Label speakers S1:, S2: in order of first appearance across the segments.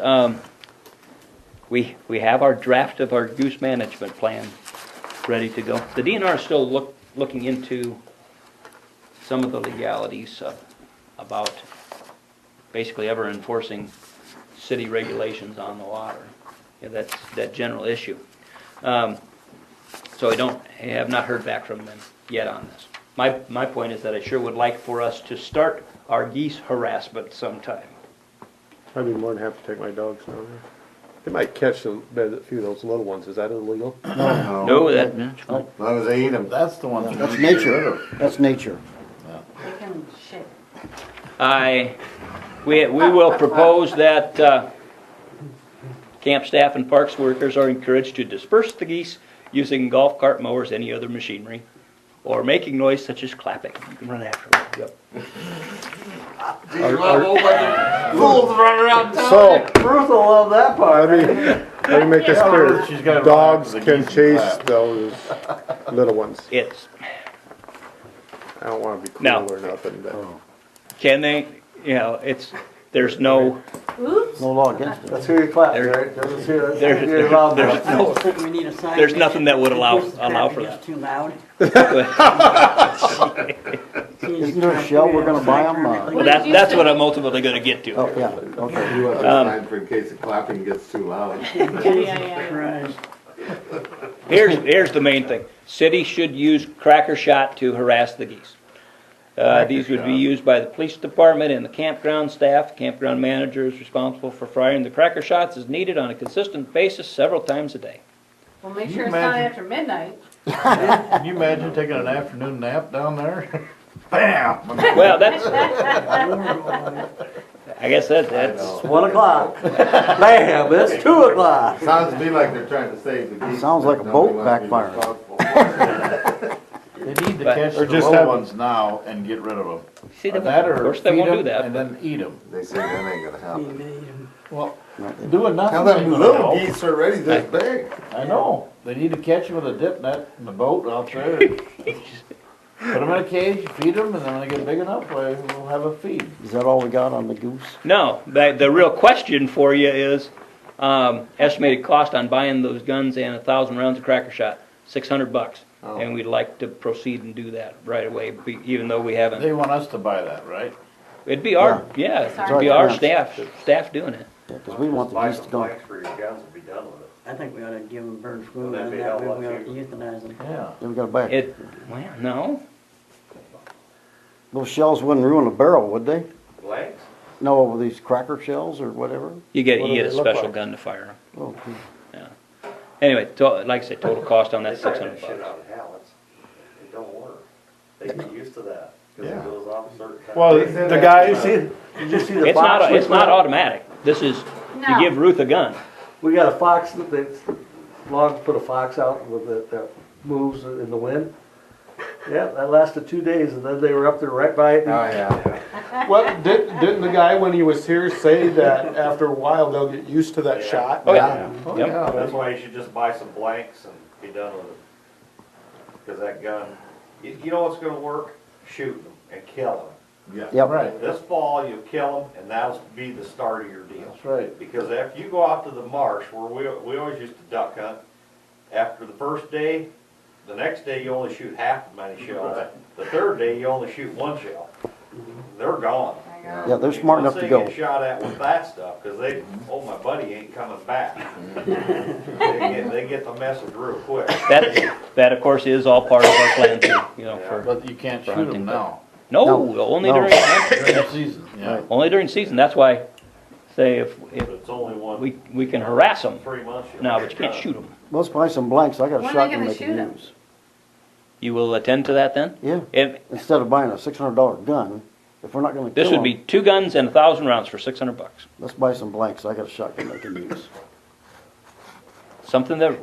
S1: um, we, we have our draft of our use management plan ready to go. The DNR is still look, looking into some of the legalities of- about basically ever enforcing city regulations on the water. Yeah, that's, that general issue. Um, so I don't, I have not heard back from them yet on this. My, my point is that I sure would like for us to start our geese harassment sometime.
S2: I'd be more than happy to take my dogs down there. They might catch some, a few of those little ones, is that illegal?
S3: Oh,
S1: No, that,
S3: As long as they eat them. That's the one.
S4: That's nature, that's nature.
S5: They can shake.
S1: I, we, we will propose that, uh, camp staff and parks workers are encouraged to disperse the geese using golf cart mowers, any other machinery, or making noise such as clapping. You can run after them, yep.
S3: These little fucking fools running around town.
S2: So,
S4: Bruce will love that
S2: let
S4: part.
S2: me, let me make this
S3: She's
S2: clear.
S3: gotta
S2: Dogs
S3: relax, the
S2: can
S3: geese
S2: chase
S3: can clap.
S2: those little ones.
S1: It's,
S2: I don't wanna be
S1: No.
S2: cruel or nothing, but
S1: can they, you know, it's, there's no,
S5: Oops.
S4: No law against it.
S3: That's who you clap,
S1: There-
S3: right? That's who that's
S1: there's,
S3: who you allow
S1: there's
S3: them.
S1: no,
S5: We need a sign.
S1: There's nothing that would allow- allow for that.
S5: It's too loud.
S4: Isn't there a shell we're gonna buy them?
S1: Well,
S4: Uh,
S1: that, that's what I'm ultimately gonna get to.
S4: oh, yeah, okay.
S3: You want a sign for in case the clapping gets too loud.
S5: Yeah, yeah, yeah.
S1: Here's, here's the main thing. City should use cracker shot to harass the geese. Uh, these would be used by the police department and the campground staff. Campground manager is responsible for firing the cracker shots as needed on a consistent basis several times a day.
S5: Well, make
S6: Can
S5: sure
S6: you
S5: it's not
S6: imagine?
S5: after midnight.
S6: Can you imagine taking an afternoon nap down there? Bam!
S1: Well, that's, I guess that, that's,
S3: know.
S4: It's one o'clock. Bam, it's two o'clock.
S3: Sounds to me like they're trying to save the geese.
S4: Sounds like a
S3: but
S4: boat
S3: nobody wants to be responsible.
S6: They need to
S1: But-
S6: catch
S2: Or
S6: the
S2: just
S6: little
S2: have-
S6: ones now and get rid of
S1: see,
S6: them.
S1: of
S6: That or
S1: course, they
S6: feed
S1: won't do
S6: 'em
S1: that.
S6: And then eat them.
S3: They say that ain't gonna happen.
S6: Well, doing nothing.
S3: Now them
S6: ain't gonna
S3: little
S6: help.
S3: geese are already this big.
S6: I know. They need to catch 'em with a dip net in the boat out there. and Put them in a cage, feed them, and then when they get big enough, we- we'll have a feed.
S4: Is that all we got on the goose?
S1: No, the, the real question for you is, um, estimated cost on buying those guns and a thousand rounds of cracker shot, six hundred bucks. And we'd like to proceed and do that right away, be- even though we haven't.
S6: They want us to buy that, right?
S1: It'd be our, yeah, it'd
S5: our
S1: be our
S4: chance.
S1: staff, staff doing it.
S4: Because we want the geese to go.
S7: for your guns will be done with it.
S5: I think we ought to give them bird food
S7: That'd be hell of a lot
S5: euthanize them.
S6: Yeah.
S4: Then we gotta buy it.
S1: It, well, no,
S4: Those shells wouldn't ruin a barrel, would they?
S7: Blanks?
S4: No, these cracker shells or whatever?
S1: you get,
S2: What
S1: you
S2: do
S1: get a
S2: they look
S1: special
S2: like?
S1: gun to fire 'em.
S4: Oh, gee.
S1: Anyway, to, like I said, total cost on that
S7: They try
S1: six
S7: that
S1: hundred
S7: shit
S1: bucks.
S7: out of Hallett's. It don't work. They get used to that, cause
S6: Yeah.
S7: it goes off a certain time.
S2: Well,
S3: They said
S2: the
S3: that,
S2: guys,
S4: Did you see the
S1: It's not,
S4: fox
S1: it's
S4: with
S1: not
S4: the-
S1: automatic. This is, you
S5: No.
S1: give Ruth a gun.
S4: We got a fox that
S3: They long put a fox out with it that moves in the wind.
S4: Yeah, that lasted two days, and then they were up there right by it.
S3: Oh, yeah.
S2: well, didn't, didn't the guy when he was here say that after a while they'll get used to that
S7: Yeah.
S2: shot?
S1: Oh, yeah.
S2: Oh,
S1: Yep.
S2: yeah.
S7: That's why you should just buy some blanks and be done with it. Cause that gun, you, you know what's gonna work? Shooting them and killing
S6: Yeah,
S4: Yep.
S6: right.
S7: them. This fall, you'll kill them and that'll be the start of your deal.
S6: That's right.
S7: Because after you go out to the marsh, where we, we always used to duck hunt, after the first day, the next day you only shoot half the many shells. The third day, you only shoot one shell. They're gone.
S5: My God.
S4: Yeah, they're smart enough to go.
S7: Once they get shot at with that stuff, because they, oh, my buddy ain't coming back. They get, they get the message real quick.
S1: That, that of course is all part of our plan, too, you know, for,
S6: But you can't
S1: For
S6: shoot
S1: hunting,
S6: them
S1: but-
S6: now.
S1: no, only
S4: No.
S1: during,
S6: During the season, yeah.
S1: Only during season, that's why, say, if, if
S7: But it's only one.
S1: we, we can harass them
S7: Three months. you'll
S1: now, but
S7: get
S1: you can't
S7: done.
S1: shoot them.
S4: Let's buy some blanks, I got a
S5: When are they
S4: shotgun
S5: gonna
S4: they
S5: shoot
S4: can
S5: 'em?
S4: use.
S1: You will attend to that then?
S4: Yeah,
S1: If,
S4: instead of buying a six hundred dollar gun, if we're not gonna
S1: this
S4: kill
S1: would be
S4: them,
S1: two guns and a thousand rounds for six hundred bucks.
S4: let's buy some blanks, I got a shotgun they can use.
S1: Something that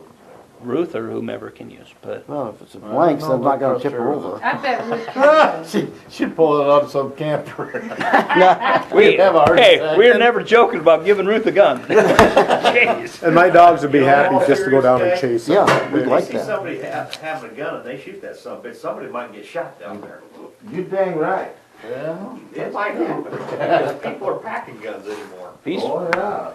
S1: Ruth or whomever can use, but
S4: Well, if it's a
S6: Well,
S4: blanks,
S6: no,
S4: I'm not
S6: but
S4: gonna
S6: trust
S4: tip her
S6: her.
S4: over.
S5: I bet we can.
S6: She, she'd pull it on some camper.
S1: we,
S6: have a heart
S1: hey,
S6: attack.
S1: we're never joking about giving Ruth a gun. Jeez.
S2: And my dogs would be
S7: You know,
S2: happy
S7: all
S2: just to go down and chase
S7: serious
S2: them.
S4: Yeah, we'd
S2: They-
S4: like
S7: You see
S4: that.
S7: somebody ha- having a gun and they shoot that son of a bitch, somebody might get shot down there.
S3: You dang right.
S6: Yeah.
S7: It might happen, because people are packing guns anymore.
S1: These
S3: Oh, yeah.